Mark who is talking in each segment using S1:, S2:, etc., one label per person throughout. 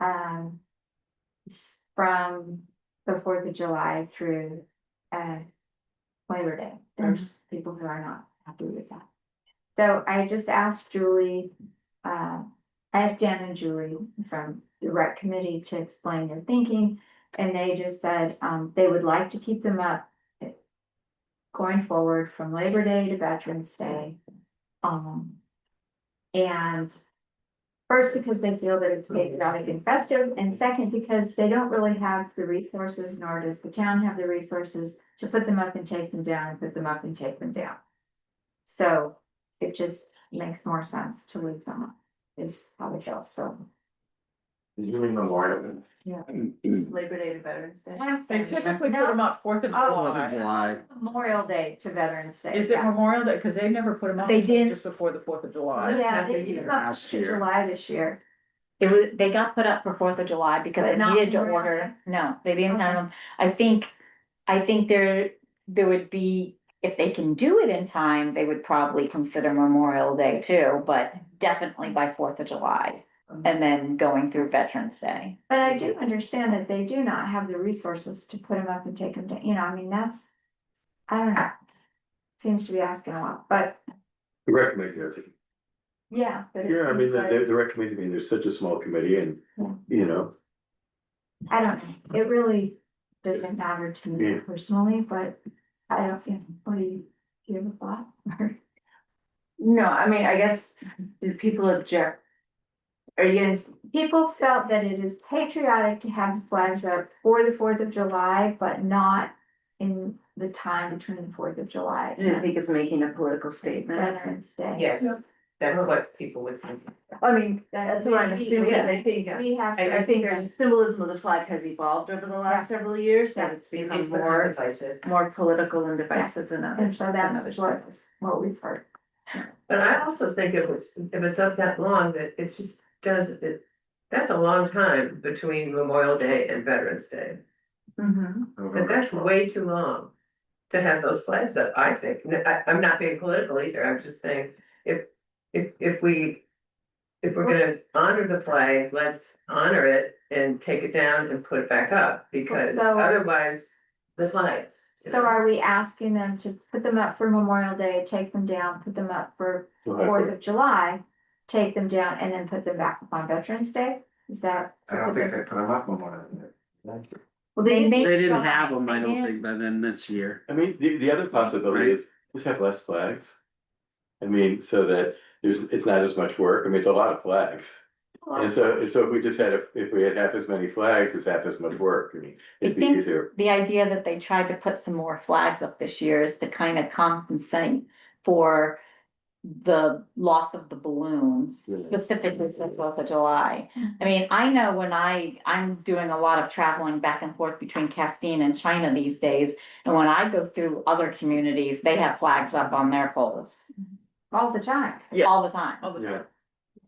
S1: um. s- From the Fourth of July through, uh. Labor Day, there's people who are not happy with that. So I just asked Julie, uh, I asked Dan and Julie from the rec committee to explain their thinking. And they just said, um, they would like to keep them up. eh, Going forward from Labor Day to Veterans Day. Um. And. First, because they feel that it's patriotic and festive, and second, because they don't really have the resources, nor does the town have the resources to put them up and take them down, and put them up and take them down. So it just makes more sense to leave them up, is how it feels, so.
S2: Did you mean Memorial?
S1: Yeah.
S2: Day?
S3: Labor Day to Veterans Day. They
S1: They
S3: typically put them up Fourth of
S1: Oh.
S3: July.
S2: July.
S1: Memorial Day to Veterans Day.
S3: Is it
S1: yeah.
S3: Memorial Day? Cause they never put them up.
S4: They
S3: until
S4: didn't.
S3: Just before the Fourth of July.
S1: Yeah,
S3: Half a
S1: they
S3: year.
S1: did not
S2: Last
S1: to
S2: year.
S1: July this year.
S4: It was, they got put up for Fourth of July because
S1: But
S4: they
S1: not
S4: needed to
S1: Memorial
S4: order, no, they didn't
S1: Okay.
S4: have them. I think, I think there, there would be, if they can do it in time, they would probably consider Memorial Day too, but definitely by Fourth of July. And then going through Veterans Day.
S1: But I do understand that they do not have the resources to put them up and take them down, you know, I mean, that's, I don't know. Seems to be asking a lot, but
S2: The rec committee, does it.
S1: yeah. but it
S2: yeah, I mean,
S1: seems like-
S2: the, the rec committee, I mean, there's such a small committee and,
S1: Yeah.
S2: you know,
S1: I don't know, it really doesn't matter to me
S2: Yeah.
S1: personally, but I don't, you know, what do you, do you have a thought? Or-
S5: No, I mean, I guess, do people object? Are you gonna,
S1: People felt that it is patriotic to have the flags up for the Fourth of July, but not in the time between the Fourth of July
S5: do you
S1: and
S5: think it's making a political statement?
S1: Veterans Day.
S6: Yes, that's what people would think.
S5: I mean,
S1: That
S5: that's what I'm
S1: we-
S5: assuming,
S1: yeah.
S5: I think, I,
S1: We have. to-
S5: I think the symbolism of the flag has evolved over the last several years, that it's
S6: It's
S5: become
S6: more
S5: more,
S6: divisive.
S5: more political and divisive than others.
S1: And so
S5: than
S1: that's
S5: others.
S1: what, what we've heard.
S6: But I also think if it's, if it's up that long, that it just does, it, that's a long time between Memorial Day and Veterans Day.
S1: Mm-hmm.
S5: Mhm.
S6: But that's way too long to have those flags up, I think. N- I, am not being political either, I'm just saying, if, if, if we. If we're gonna honor the flag, let's honor it and take it down and put it back up, because
S1: So-
S6: otherwise, the flags. you
S1: So
S6: know?
S1: are we asking them to put them up for Memorial Day, take them down, put them up for Fourth of July? Take them down and then put them back up on Veterans Day? Is that?
S7: I don't think they put them up Memorial Day.
S1: Well,
S4: They
S1: may-
S4: may-
S8: They didn't have
S4: July,
S8: them, I
S4: yeah.
S8: don't think, by then this year.
S2: I mean, the, the other possibility is, just have less flags. I mean, so that there's, it's not as much work, I mean, it's a lot of flags. And so, and so if we just had, a- if we had half as many flags, it's half as much work, I mean, it'd
S4: I
S2: be
S4: think-
S2: easier.
S4: The idea that they tried to put some more flags up this year is to kind of compensate for the loss of the balloons,
S2: Yeah.
S4: specifically for Fourth of July. I mean, I know when I, I'm doing a lot of traveling back and forth between Castine and China these days. And when I go through other communities, they have flags up on their poles
S1: All the time.
S3: Yeah.
S4: all the time.
S3: All the-
S2: Yeah,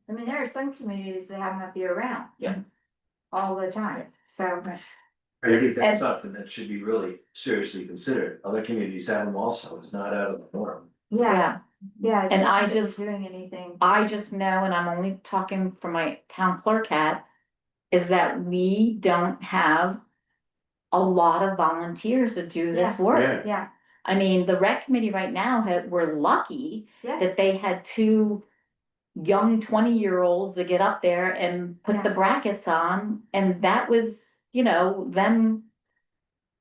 S1: I mean, there are some communities that have them up year round.
S3: Yeah.
S1: All the time, so.
S7: I think that's something that should be really seriously considered, other communities have them also, it's not out of the norm.
S1: Yeah, yeah. it's
S4: And
S1: not
S4: I
S1: that they're
S4: just-
S1: Doing anything.
S4: I just know, and I'm only talking for my town clerk hat, is that we don't have a lot of volunteers that do this work.
S2: yeah,
S1: Yeah,
S4: I mean, the rec committee right now had, we're lucky
S1: yeah,
S4: that they had two young twenty-year-olds that get up there and put the
S1: Yeah.
S4: brackets on, and that was, you know, them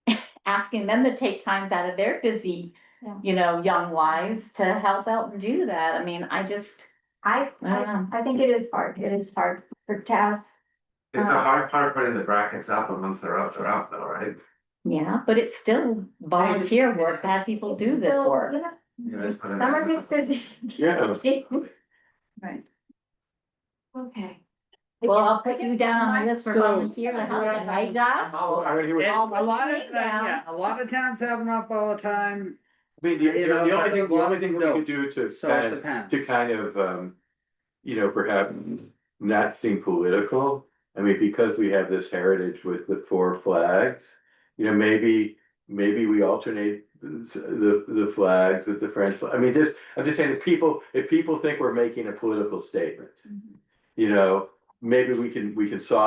S4: asking them to take times out of their busy,
S1: Yeah.
S4: you know, young lives to help out and do that. I mean, I just,
S1: I,
S4: I don't know.
S1: I, I think it is hard, it is hard for tasks.
S7: Is the
S1: Uh.
S7: hard part putting the brackets up, and once they're up, they're up though, right?
S4: Yeah, but it's still volunteer work to have people do this
S1: So,
S4: work.
S1: you know,
S7: You guys put it
S1: Summer
S7: up.
S1: gets busy.
S2: yeah.
S1: Okay.
S4: Well, I'll put you down on the list for volunteer to help, right, Doc?
S2: Oh, I mean, he would-
S8: And
S4: All
S8: a lot of, uh,
S4: right now.
S8: yeah, a lot of towns have them up all the time,
S2: I mean, the,
S8: You
S2: the
S8: know,
S2: the
S8: I
S2: only thing,
S8: think
S2: the
S8: one
S2: only thing we
S8: would
S2: could do to
S8: so it
S2: kind of, to
S8: depends.
S2: kind of, um, you know, perhaps not seem political. I mean, because we have this heritage with the four flags, you know, maybe, maybe we alternate the, the flags with the French. flag. I mean, just, I'm just saying, if people,
S8: Mm-hmm.
S2: if people think we're making a political statement, you know, maybe we can, we can soften